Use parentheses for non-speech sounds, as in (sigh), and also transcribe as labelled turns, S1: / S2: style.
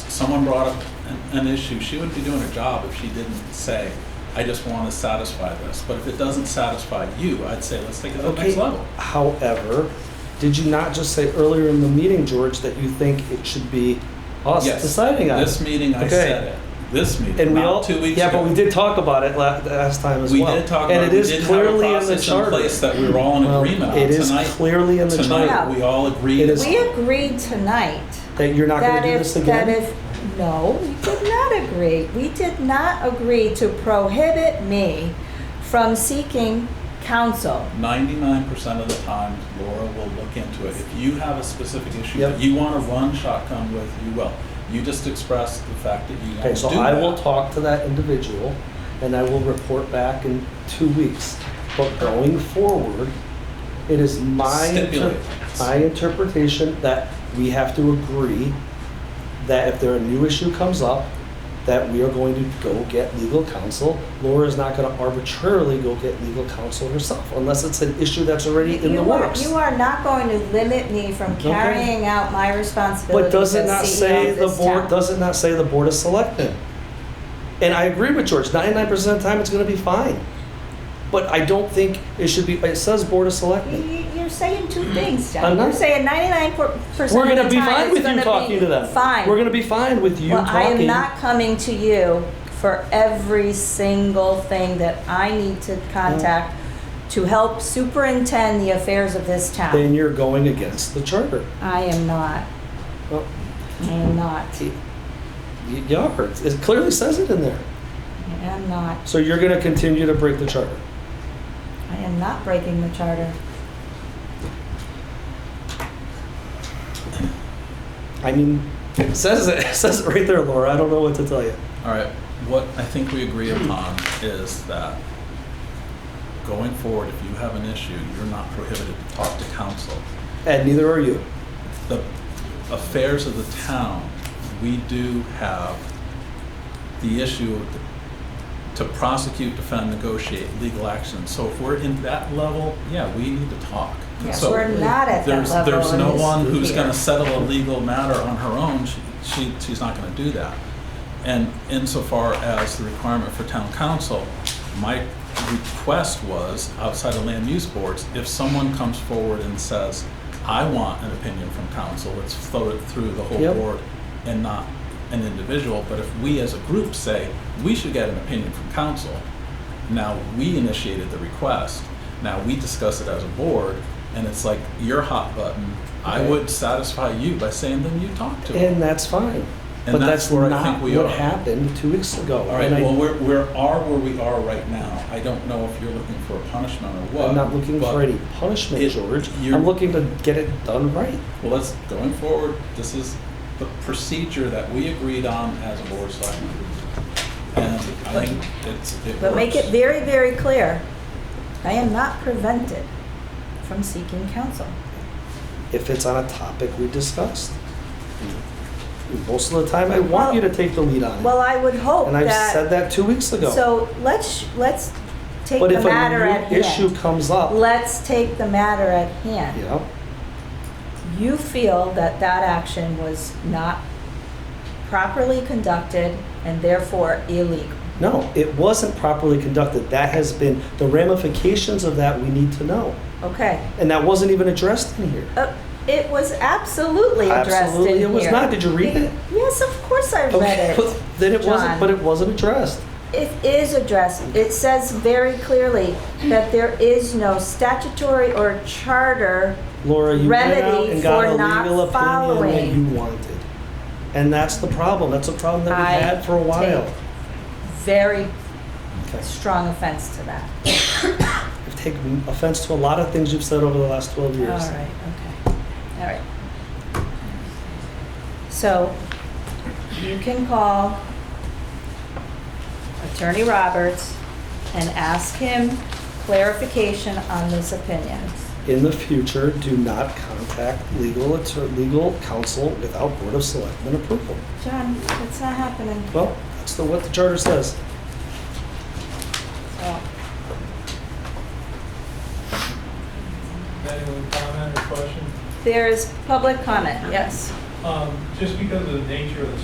S1: someone brought up an, an issue, she wouldn't be doing her job if she didn't say, I just want to satisfy this. But if it doesn't satisfy you, I'd say, let's take it to the next
S2: Okay.
S1: level.
S2: However, did you not just say earlier in the meeting, George, that you think it should be us
S1: Yes.
S2: deciding on
S1: This
S2: it?
S1: meeting, I
S2: Okay.
S1: said it. This meeting,
S2: And we all,
S1: not two weeks ago.
S2: yeah, but we did talk about it la- last time as
S1: We
S2: well.
S1: did talk about, it.
S2: And
S1: we
S2: it is
S1: did have a
S2: clearly in the
S1: process in
S2: charter.
S1: place that we were all in
S2: Well,
S1: agreement on.
S2: It is
S1: Tonight-
S2: clearly in the charter
S1: Tonight, we all agreed.
S2: It is-
S3: We agreed tonight
S2: that you're not going
S3: that
S2: to do
S3: if,
S2: this
S3: that
S2: again.
S3: if, no, we did not agree. We did not agree to prohibit me from seeking counsel.
S1: Ninety-nine percent of the time, Laura will look into it. If you have a specific issue
S2: Yep.
S1: that you want to run shotgun with, you will. You just express the fact that you
S2: Okay,
S1: want to
S2: so
S1: do
S2: I will
S1: that.
S2: talk to that individual and I will report back in two weeks. But going forward, it is my, inter-
S1: Stipulate.
S2: my interpretation that we have to agree that if there a new issue comes up, that we are going to go get legal counsel. Laura is not gonna arbitrarily go get legal counsel herself unless it's an issue that's already in the
S3: You are-
S2: works.
S3: You are not going to limit me from
S2: Okay.
S3: carrying out my responsibilities
S2: But does it
S3: as
S2: not
S3: CEO
S2: say
S3: of
S2: the
S3: this
S2: board,
S3: town.
S2: does it not say the board of selectmen? And I agree with George, ninety-nine percent of the time, it's gonna be fine. But I don't think it should be, it says board of
S3: You-
S2: selectmen.
S3: you- You're saying two things,
S2: I'm
S3: John.
S2: not-
S3: You're saying ninety-nine
S2: We're
S3: percent
S2: gonna
S3: of
S2: be
S3: the time,
S2: fine
S3: it's
S2: with you
S3: gonna
S2: talking to
S3: be
S2: them.
S3: fine.
S2: We're gonna be fine with you
S3: Well, I am
S2: talking.
S3: not coming to you for every single thing that I need to contact to help superintend the affairs of this
S2: Then
S3: town.
S2: you're going against the charter.
S3: I am not,
S2: Well,
S3: I am not,
S2: y- You are, it clearly says it in there.
S3: I am not,
S2: So you're gonna continue to break the charter.
S3: I am not breaking the charter.
S2: I mean, it says it, (laughs) it says it right there, Laura, I don't know what to tell you.
S1: All right, what I think we agree upon is that going forward, if you have an issue, you're not prohibited to talk to council.
S2: And neither are you.
S1: The affairs of the town, we do have the issue of to prosecute, defend, negotiate legal action. So if we're in that level, yeah, we need to talk. And
S3: Yes,
S1: so
S3: we're not at that
S1: there's-
S3: level
S1: There's
S3: in
S1: no
S3: this
S1: one who's
S3: here.
S1: going to settle a legal matter on her own. She- She, she's not going to do that. And insofar as the requirement for town council, my request was, outside of land use boards, if someone comes forward and says, I want an opinion from council, let's float it through the whole
S2: Yep.
S1: board and not an individual. But if we as a group say, we should get an opinion from council, now we initiated the request, now we discuss it as a board, and it's like your hot button. I
S2: Okay.
S1: would satisfy you by saying, then you talk to them.
S2: And that's fine.
S1: And
S2: But
S1: that's
S2: that's
S1: where I
S2: not
S1: think we
S2: what
S1: are.
S2: happened two weeks ago.
S1: All right,
S2: And I-
S1: well, we're, we are where we are right now. I don't know if you're looking for a punishment or what.
S2: I'm not looking
S1: but-
S2: for any punishment,
S1: it-
S2: George.
S1: you're-
S2: I'm looking to get it done right.
S1: Well, let's, going forward, this is the procedure that we agreed on as a board selectmen. And I think it's, it works.
S3: But make it very, very clear, I am not prevented from seeking counsel.
S2: If it's on a topic we discussed. And Most of the time, I want you to take the lead on it.
S3: Well, I would hope
S2: And I've said
S3: that,
S2: that two weeks ago.
S3: so let's, let's take
S2: But
S3: the
S2: if
S3: matter at
S2: a new
S3: hand.
S2: issue comes up,
S3: Let's take the matter at hand.
S2: you know,
S3: you feel that that action was not properly conducted and therefore illegal.
S2: no, it wasn't properly conducted. That has been, the ramifications of that we need to know.
S3: Okay.
S2: And that wasn't even addressed in here.
S3: Uh, It was absolutely addressed in
S2: Absolutely
S3: here.
S2: it was not. Did you read it?
S3: Yes, of course I
S2: Okay, (laughs)
S3: read
S2: but
S3: it.
S2: Then it wasn't,
S3: John.
S2: but it wasn't addressed.
S3: It is addressed. It says very clearly that there is no statutory or charter.
S2: Laura, you went out
S3: remedy
S2: and got a
S3: for not
S2: legal opinion that
S3: following.
S2: you wanted. And that's the problem. That's a problem that
S3: I
S2: we've had for a while.
S3: take Very
S2: Okay.
S3: strong offense to that.
S2: I've taken offense to a lot of things you've said over the last 12
S3: All
S2: years.
S3: right, okay, all right. So you can call Attorney Roberts and ask him clarification on this opinion.
S2: In the future, do not contact legal, atter- legal counsel without Board of Selectmen approval.
S3: John, that's not happening.
S2: Well, that's the, what the charter says.
S3: So,
S4: Anyone comment or question?
S3: There is public comment, yes.
S4: Um, Just because of the nature of the